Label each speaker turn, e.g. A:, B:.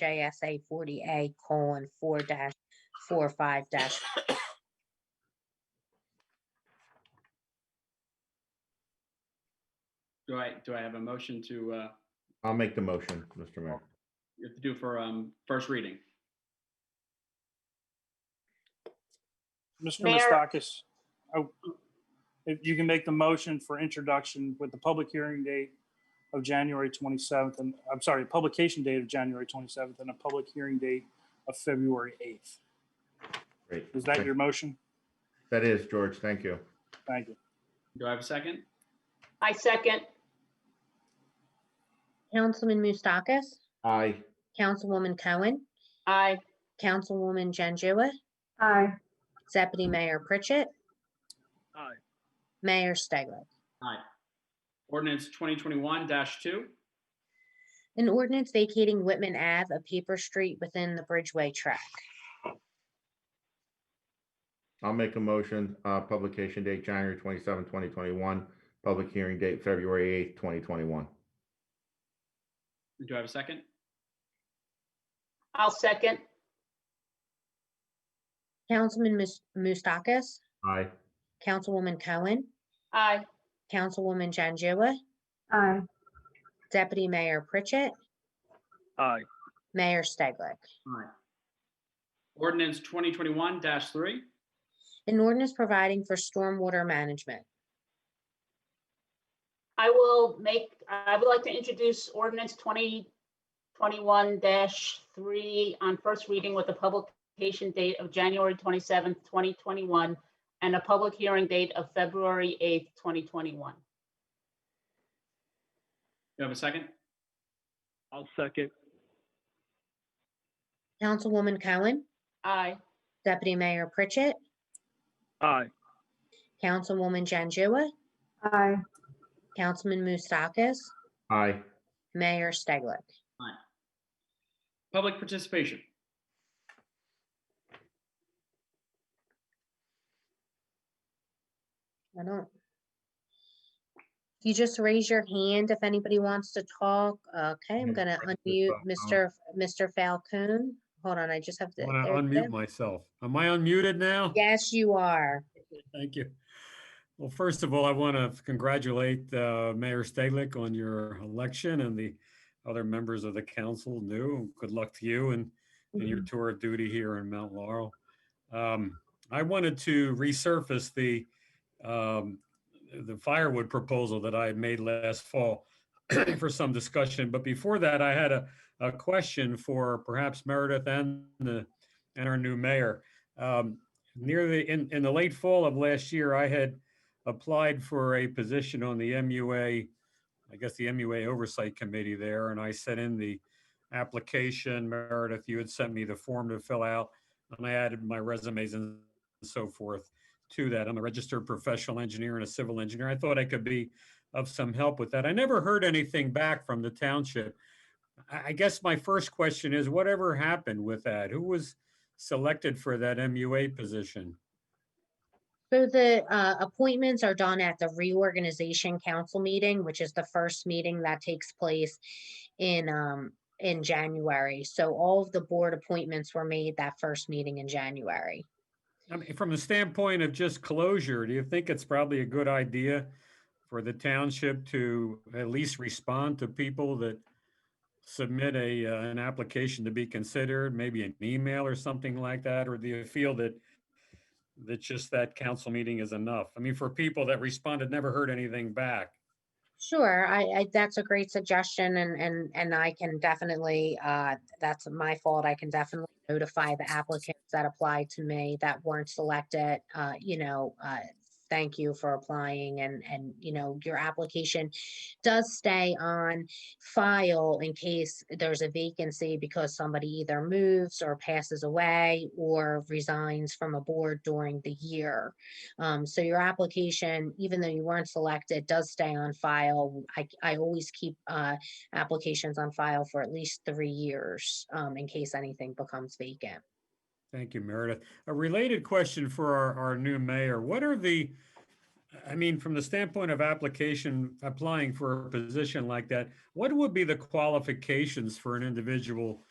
A: NJSA forty A colon four dash four five dash.
B: Do I, do I have a motion to, uh,
C: I'll make the motion, Mr. Mayor.
B: you have to do for, um, first reading?
D: Mr.
A: Mayor-
D: Mustakis, I- oh, if you can make the motion for introduction with the public hearing date of January 27th, and, I'm sorry, publication date of January 27th and a public hearing date of February 8th.
C: Great.
D: Is that your motion?
C: That is, George. Thank you.
D: Thank you.
B: Do I have a second?
E: I second.
A: Councilman Mustakis,
C: Aye.
A: Councilwoman Cohen,
E: Aye.
A: Councilwoman Janjua,
E: Aye.
A: Deputy Mayor Pritchett.
D: Aye.
A: Mayor Stegler.
B: Aye. Ordinance twenty twenty-one two,
A: An ordinance vacating Whitman Ave, a paper street within the Bridgeway track.
C: I'll make a motion, uh, publication date January 27, 2021, public hearing date February eighth, 2021.
B: do I have a second?
E: I'll second.
A: Councilman Mus- Mustakis,
C: Aye.
A: Councilwoman Cohen,
E: Aye.
A: Councilwoman Janjua,
E: Aye.
A: Deputy Mayor Pritchett,
D: Aye.
A: Mayor Stegler.
B: Aye. Ordinance twenty twenty-one three,
A: An ordinance providing for stormwater management.
E: I will make, I would like to introduce ordinance twenty twenty-one three on first reading with a publication date of January twenty-seventh, twenty twenty-one, and a public hearing date of February eighth, twenty twenty-one.
B: do I have a second?
F: I'll second.
A: Councilwoman Cohen,
E: Aye.
A: Deputy Mayor Pritchett,
F: Aye.
A: Councilwoman Janjua,
E: Aye.
A: Councilman Mustakis,
C: Aye.
A: Mayor Stegler.
B: Public participation.
A: I don't. You just raise your hand if anybody wants to talk. Okay, I'm
C: Yeah,
A: gonna
C: press the
A: unmute Mr.
C: button.
A: F- Mr. Falcone. Hold on, I just have to.
G: I want to
A: there we
G: unmute
A: go.
G: myself. Am I unmuted now?
A: Yes, you are.
G: Thank you. Well, first of all, I want to congratulate uh, Mayor Stalick on your election and the other members of the council new. Good luck to you and, and your tour of duty here in Mount Laurel. Um, I wanted to resurface the, um, the firewood proposal that I had made last fall for some discussion. But before that, I had a, a question for perhaps Meredith and the, and our new mayor. Um, near the in, in the late fall of last year, I had applied for a position on the MUA, I guess the MUA Oversight Committee there, and I sent in the application. Meredith, you had sent me the form to fill out, and I added my resumes and so forth to that. I'm a registered professional engineer and a civil engineer. I thought I could be of some help with that. I never heard anything back from the township. I, I guess my first question is, whatever happened with that? Who was selected for that MUA position.
A: So the uh, appointments are done at the reorganization council meeting, which is the first meeting that takes place in, um, in January. So all of the board appointments were made that first meeting in January.
G: I mean, from the standpoint of just closure, do you think it's probably a good idea for the township to at least respond to people that submit a, uh, an application to be considered, maybe an email or something like that? Or do you feel that, that just that council meeting is enough? I mean, for people that responded, never heard anything back.
A: Sure, I, I, that's a great suggestion and, and, and I can definitely, uh, that's my fault. I can definitely notify the applicants that applied to me that weren't selected, uh, you know, uh, thank you for applying and, and, you know, your application does stay on file in case there's a vacancy because somebody either moves or passes away or resigns from a board during the year. Um, so your application, even though you weren't selected, does stay on file. I, I always keep, uh, applications on file for at least three years, um, in case anything becomes vacant.
G: Thank you, Meredith. A related question for our, our new mayor, what are the, I mean, from the standpoint of application, applying for a position like that, what would be the qualifications for an individual